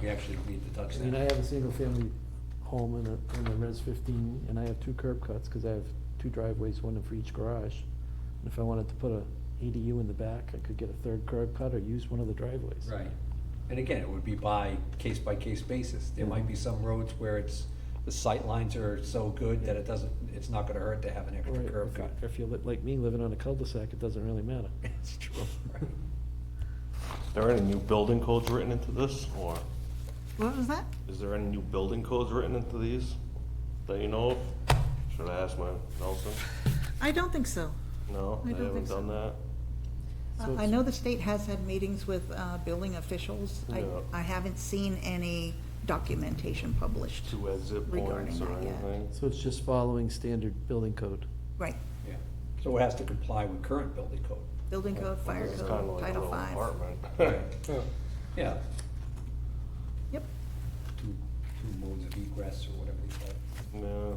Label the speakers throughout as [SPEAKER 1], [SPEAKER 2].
[SPEAKER 1] we actually don't need to touch
[SPEAKER 2] I
[SPEAKER 1] that.
[SPEAKER 2] mean, I have a single-family home in a, in a res fifteen, and I have two curb cuts, cause I have two driveways, one for each garage. And if I wanted to put a ADU in the back, I could get a third curb cut or use one of the driveways.
[SPEAKER 1] Right, and again, it would be by case-by-case basis, there might be some roads where it's, the sight lines are so good that it doesn't, it's not gonna hurt to have an
[SPEAKER 2] Or
[SPEAKER 1] extra curb
[SPEAKER 2] if,
[SPEAKER 1] cut.
[SPEAKER 2] if you're li- like me, living on a cul-de-sac, it doesn't really matter.
[SPEAKER 1] It's true, right.
[SPEAKER 3] Is there any new building codes written into this, or
[SPEAKER 4] What was that?
[SPEAKER 3] is there any new building codes written into these that you know of? Should I ask my Nelson?
[SPEAKER 4] I don't think so.
[SPEAKER 3] No,
[SPEAKER 4] I
[SPEAKER 3] they
[SPEAKER 4] don't
[SPEAKER 3] haven't
[SPEAKER 4] think so.
[SPEAKER 3] done that?
[SPEAKER 2] So
[SPEAKER 4] Uh, I
[SPEAKER 2] it's-
[SPEAKER 4] know the state has had meetings with uh, building officials. I-
[SPEAKER 3] Yeah.
[SPEAKER 4] I haven't seen any documentation published.
[SPEAKER 3] Two exit points
[SPEAKER 4] Regarding
[SPEAKER 3] or
[SPEAKER 4] that, yeah.
[SPEAKER 3] anything?
[SPEAKER 2] So it's just following standard building code.
[SPEAKER 4] Right,
[SPEAKER 1] Yeah, so it has to comply with current building code.
[SPEAKER 4] building code, fire
[SPEAKER 3] It's kinda
[SPEAKER 4] code,
[SPEAKER 3] like a
[SPEAKER 4] Title
[SPEAKER 3] little
[SPEAKER 4] Five.
[SPEAKER 3] apartment.
[SPEAKER 1] Yeah,
[SPEAKER 4] Yep,
[SPEAKER 1] two, two modes of egress or whatever they call it,
[SPEAKER 3] Yeah,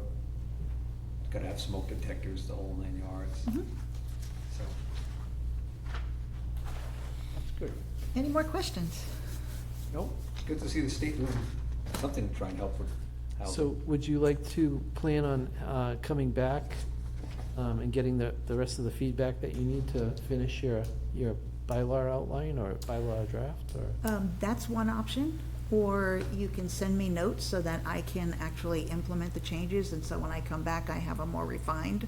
[SPEAKER 1] It's gotta have smoke detectors, the whole nine yards,
[SPEAKER 4] Mhm.
[SPEAKER 1] so. It's good,
[SPEAKER 4] any more questions?
[SPEAKER 1] no, it's good to see the state doing something to try and help with housing.
[SPEAKER 2] So would you like to plan on uh, coming back um, and getting the, the rest of the feedback that you need to finish your, your bylaw outline or bylaw draft or?
[SPEAKER 4] Um, That's one option, or you can send me notes so that I can actually implement the changes, and so when I come back, I have a more refined.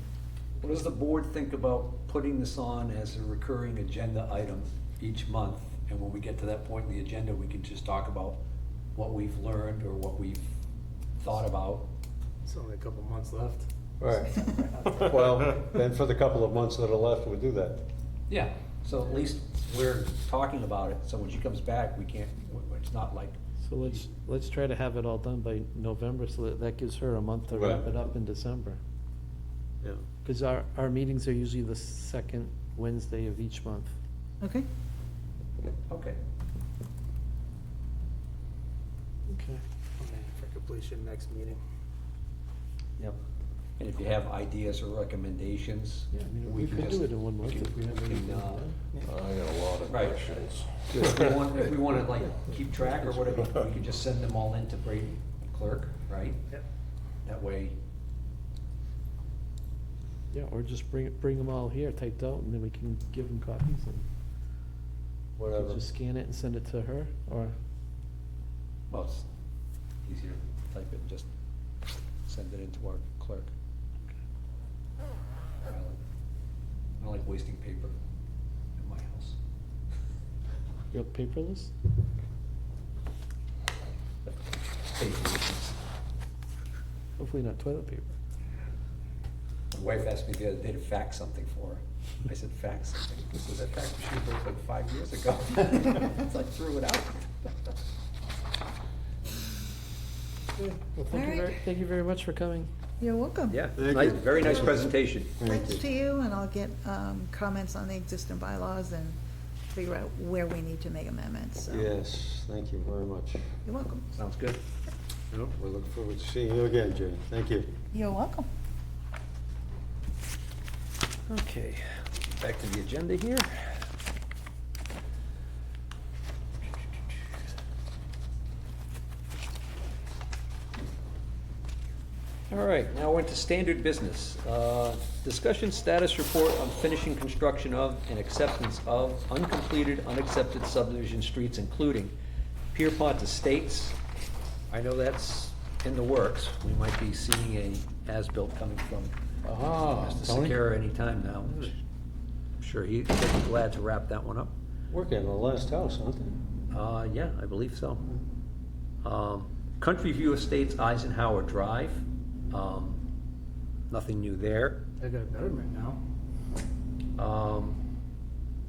[SPEAKER 1] What does the board think about putting this on as a recurring agenda item each month? And when we get to that point in the agenda, we can just talk about what we've learned or what we've thought about.
[SPEAKER 5] It's only a couple months left.
[SPEAKER 6] Right. Well, then for the couple of months that are left, we'll do that.
[SPEAKER 1] Yeah, so at least we're talking about it, so when she comes back, we can't, it's not like,
[SPEAKER 2] So let's, let's try to have it all done by November so that that gives her a month to wrap
[SPEAKER 6] Right.
[SPEAKER 2] it up in December.
[SPEAKER 5] Yeah.
[SPEAKER 2] Because our, our meetings are usually the second Wednesday of each month.
[SPEAKER 4] Okay,
[SPEAKER 1] okay.
[SPEAKER 2] Okay.
[SPEAKER 5] For completion next meeting.
[SPEAKER 1] Yep. And if you have ideas or recommendations,
[SPEAKER 2] Yeah, I mean,
[SPEAKER 1] we
[SPEAKER 2] we
[SPEAKER 1] can
[SPEAKER 2] could
[SPEAKER 1] just-
[SPEAKER 2] do it in one month
[SPEAKER 1] can-
[SPEAKER 2] if we have
[SPEAKER 1] we can,
[SPEAKER 2] anything.
[SPEAKER 1] uh,
[SPEAKER 2] done.
[SPEAKER 3] I got a lot of
[SPEAKER 1] Right.
[SPEAKER 3] questions.
[SPEAKER 1] If we want, if we wanna like keep track or whatever, we can just send them all in to Brady Clerk, right?
[SPEAKER 5] Yep.
[SPEAKER 1] That way,
[SPEAKER 2] Yeah, or just bring, it- bring them all here typed out and then we can give them copies and.
[SPEAKER 6] Whatever.
[SPEAKER 2] Just scan it and send it to her, or,
[SPEAKER 1] well, it's easier to type it and just send it into our clerk. I like- I don't like wasting paper in my house.
[SPEAKER 2] you're paperless?
[SPEAKER 1] Paper issues.
[SPEAKER 2] Hopefully not toilet paper.
[SPEAKER 1] My wife asked me the other day to fax something for her. I said, fax something. She said, that fax machine was like five years ago. So I threw it out.
[SPEAKER 2] Well, thank you
[SPEAKER 4] Alright.
[SPEAKER 2] very, thank you very much for coming.
[SPEAKER 4] you're welcome.
[SPEAKER 1] Yeah, nice, very nice presentation.
[SPEAKER 4] Thanks to you, and I'll get um, comments on the existing bylaws and figure out where we need to make amendments, so.
[SPEAKER 6] Yes, thank you very much.
[SPEAKER 4] You're welcome.
[SPEAKER 1] Sounds good.
[SPEAKER 6] We look forward to seeing you again, Jane. Thank you.
[SPEAKER 4] You're welcome.
[SPEAKER 1] Okay, back to the agenda here. All right, now we're into standard business. Uh, Discussion status report on finishing construction of and acceptance of uncompleted, unaccepted subdivision streets, including Pierpont Estates. I know that's in the works. We might be seeing a as-built coming from Mr. Secura anytime now. I'm sure he'd be glad to wrap that one up.
[SPEAKER 6] Working on the last house, aren't they?
[SPEAKER 1] Uh, yeah, I believe so. Um, Country View Estates Eisenhower Drive, um, nothing new there.
[SPEAKER 5] I got a better right now.
[SPEAKER 1] Um,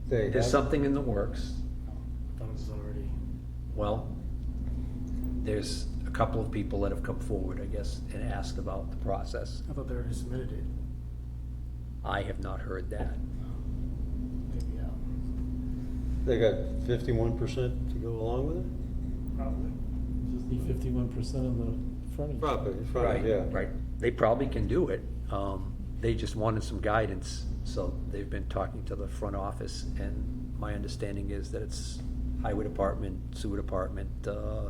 [SPEAKER 6] They
[SPEAKER 1] there's
[SPEAKER 6] have-
[SPEAKER 1] something in the works.
[SPEAKER 5] I thought it was already.
[SPEAKER 1] Well, there's a couple of people that have come forward, I guess, and asked about the process.
[SPEAKER 5] I thought they already submitted it.
[SPEAKER 1] I have not heard that.
[SPEAKER 5] Maybe out.
[SPEAKER 6] They got fifty-one percent to go along with it?
[SPEAKER 5] Probably.
[SPEAKER 2] Just need fifty-one percent of the frontage.
[SPEAKER 6] Property,
[SPEAKER 1] Right,
[SPEAKER 6] front, yeah.
[SPEAKER 1] right. They probably can do it. Um, They just wanted some guidance, so they've been talking to the front office, and my understanding is that it's highway department, sewer department, uh,